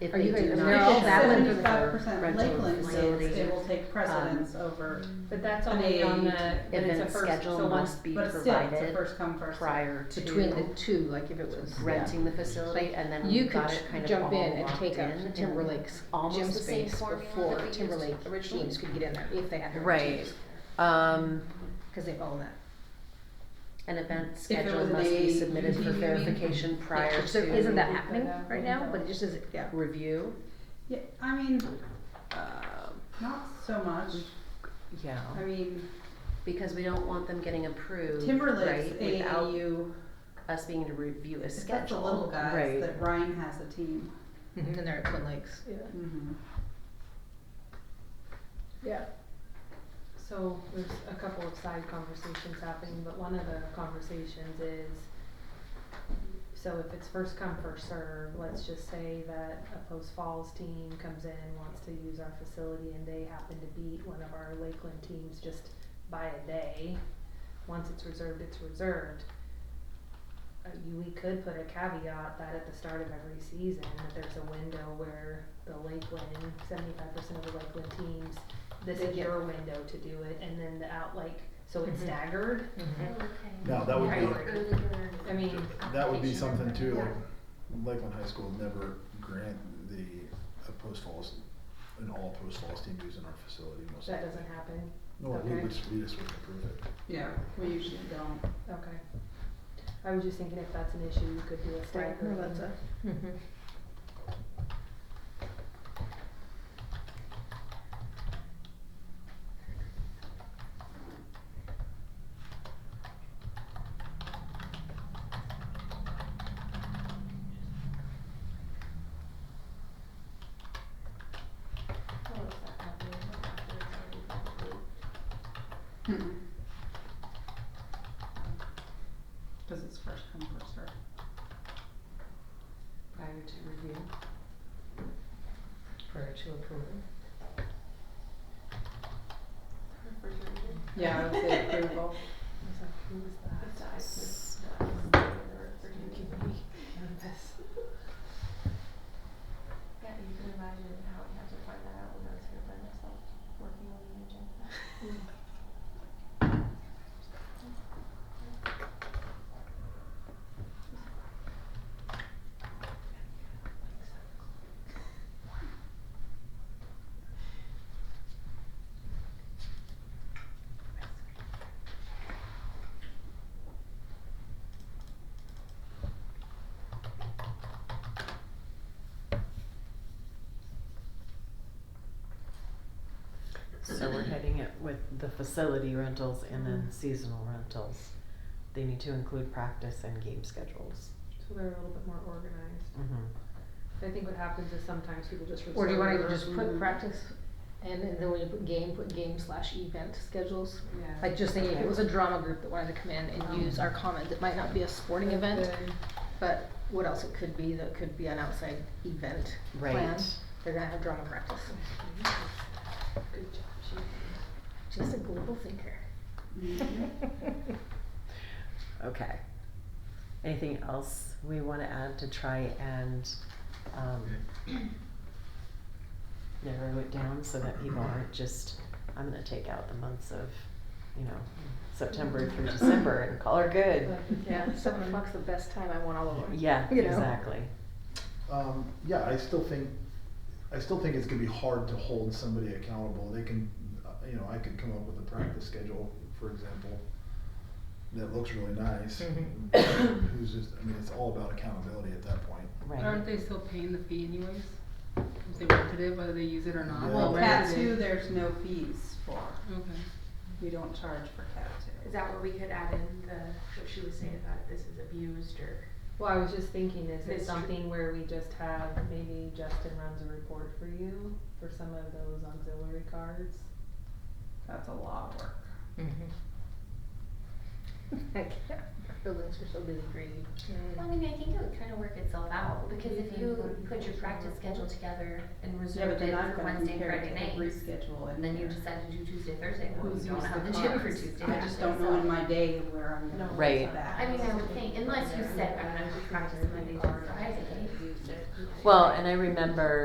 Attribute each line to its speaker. Speaker 1: if
Speaker 2: Are
Speaker 1: they
Speaker 2: you guys-
Speaker 1: do
Speaker 2: they're
Speaker 1: not
Speaker 2: all
Speaker 1: have
Speaker 2: valid for the
Speaker 3: Seventy-five percent
Speaker 1: rental
Speaker 3: Lakeland
Speaker 1: facilities.
Speaker 3: lands, they will take precedence over,
Speaker 4: But that's only on the, when it's a
Speaker 1: Event
Speaker 4: first, so
Speaker 1: schedule
Speaker 4: once,
Speaker 1: must be
Speaker 3: but still, it's a
Speaker 1: provided
Speaker 3: first come, first served.
Speaker 1: prior to.
Speaker 2: between the two, like if it was.
Speaker 1: renting the facility and then
Speaker 2: You
Speaker 1: we've
Speaker 2: could
Speaker 1: got it kind of all
Speaker 2: jump
Speaker 1: locked
Speaker 2: in
Speaker 1: in.
Speaker 2: and take up
Speaker 1: and
Speaker 2: Timberlake's
Speaker 1: almost
Speaker 2: gym
Speaker 1: the same
Speaker 2: space
Speaker 1: formula
Speaker 2: before
Speaker 1: that we used
Speaker 2: Timberlake
Speaker 1: originally.
Speaker 2: teams could get in there, if they had their own
Speaker 1: Right.
Speaker 2: teams,
Speaker 1: Um,
Speaker 2: cause they own that.
Speaker 1: an event
Speaker 3: it
Speaker 1: schedule
Speaker 3: was an
Speaker 1: must be
Speaker 3: A,
Speaker 1: submitted
Speaker 3: B,
Speaker 1: for
Speaker 3: you mean?
Speaker 1: verification prior
Speaker 2: So isn't
Speaker 1: to
Speaker 2: that happening right now, but it just is, yeah.
Speaker 1: review.
Speaker 3: Yeah, I mean, uh,
Speaker 1: Um,
Speaker 3: not so much,
Speaker 1: Yeah,
Speaker 3: I mean,
Speaker 1: because we don't want them getting approved,
Speaker 3: Timberlake's
Speaker 1: right, without
Speaker 3: AAU,
Speaker 1: us being able to review a
Speaker 3: it's
Speaker 1: schedule.
Speaker 3: got the little guys
Speaker 1: Right.
Speaker 3: that Ryan has a team.
Speaker 1: Mm-hmm.
Speaker 2: And they're at Twin Lakes. Yeah.
Speaker 3: Mhm.
Speaker 2: Yeah.
Speaker 4: so there's a couple of side conversations happening, but one of the conversations is, so if it's first come, first serve, let's just say that a Post Falls team comes in, wants to use our facility, and they happen to beat one of our Lakeland teams just by a day. Once it's reserved, it's reserved. Uh, you, we could put a caveat that at the start of every season, that there's a window where the Lakeland, seventy-five percent of the Lakeland teams, this
Speaker 2: They
Speaker 4: is
Speaker 2: get-
Speaker 4: your window to do it, and then the out, like, so it's
Speaker 2: Mhm.
Speaker 4: staggered,
Speaker 5: Now, that would
Speaker 4: Right.
Speaker 5: be,
Speaker 4: I mean,
Speaker 5: that would be something too, like Lakeland High School never grant the, a post falls, an all post falls team using our facility most
Speaker 4: that
Speaker 5: likely.
Speaker 4: doesn't happen,
Speaker 5: No, we
Speaker 4: okay.
Speaker 5: would, we just would approve it.
Speaker 3: Yeah, we usually don't.
Speaker 4: okay. I was just thinking if that's an issue, you could do a
Speaker 2: Right,
Speaker 4: staggered.
Speaker 2: no, that's a,
Speaker 3: Cause it's first come, first served.
Speaker 4: Prior to review.
Speaker 2: prior to approval.
Speaker 3: Yeah, I would say approval.
Speaker 4: I was like, who is that? Nervous.
Speaker 6: Yeah, you can imagine how I'd have to find that out when I was gonna find myself working on the agenda.
Speaker 7: So we're heading it with the facility rentals and then seasonal rentals. They need to include practice and game schedules.
Speaker 4: So they're a little bit more organized.
Speaker 7: Mm-hmm.
Speaker 4: I think what happens is sometimes people just.
Speaker 2: Or do you wanna
Speaker 4: reserve
Speaker 2: just put
Speaker 3: Mhm.
Speaker 2: practice, and then when you put game, put game slash event schedules?
Speaker 4: Yeah.
Speaker 2: Like just thinking, if it was a drama group that wanted to come in and use our commons, it might not be a sporting
Speaker 4: But
Speaker 2: event,
Speaker 4: then-
Speaker 2: but what else it could be, that could be an outside event
Speaker 7: Right.
Speaker 2: plan. They're gonna have drama practice.
Speaker 4: Good job, Chief.
Speaker 2: She's a global thinker.
Speaker 3: Mm-hmm.
Speaker 2: Mm-hmm.
Speaker 7: Okay. Anything else we want to add to try and um, narrow it down so that people aren't just, I'm going to take out the months of, you know, September through December and call her good.
Speaker 4: But-
Speaker 2: Yeah, seven o'clock's the best time, I want all of them.
Speaker 7: Yeah,
Speaker 2: You know.
Speaker 7: exactly.
Speaker 5: Um, yeah, I still think, I still think it's gonna be hard to hold somebody accountable. They can, uh, you know, I could come up with a practice schedule, for example, that looks really nice. Who's just, I mean, it's all about accountability at that point.
Speaker 7: Right.
Speaker 8: they still paying the fee anyways? If they rented it, whether they use it or
Speaker 5: not?
Speaker 3: Well,
Speaker 5: Well,
Speaker 3: cat two, there's no fees for,
Speaker 8: Okay.
Speaker 3: we don't charge for cat two.
Speaker 6: Is that where we could add in the, what she was saying about this is abused or?
Speaker 4: Well, I was just thinking, is it
Speaker 6: Mystery.
Speaker 4: something where we just have, maybe Justin runs a report for you for some of those auxiliary cards?
Speaker 3: That's a lot of work.
Speaker 2: I can't. Buildings are so busy, crazy.
Speaker 6: Well, I mean, I think it would kind of work itself out, because if you put your practice schedule together and
Speaker 3: Yeah, but
Speaker 6: reserved it
Speaker 3: then I'm
Speaker 6: for
Speaker 3: gonna
Speaker 6: Wednesday,
Speaker 3: compare it
Speaker 6: Friday
Speaker 3: to every
Speaker 6: night,
Speaker 3: schedule in
Speaker 6: and then you
Speaker 3: here.
Speaker 6: decide to do Tuesday, Thursday, well,
Speaker 3: Who's
Speaker 6: you don't
Speaker 3: used
Speaker 6: have the
Speaker 3: the
Speaker 6: gym for
Speaker 3: cars?
Speaker 6: Tuesday.
Speaker 3: I just don't know in my day where I'm gonna.
Speaker 4: No.
Speaker 7: Right.
Speaker 3: put that.
Speaker 6: I mean, I would think, unless you said, I'm gonna practice Monday through Friday.
Speaker 7: Well, and I remember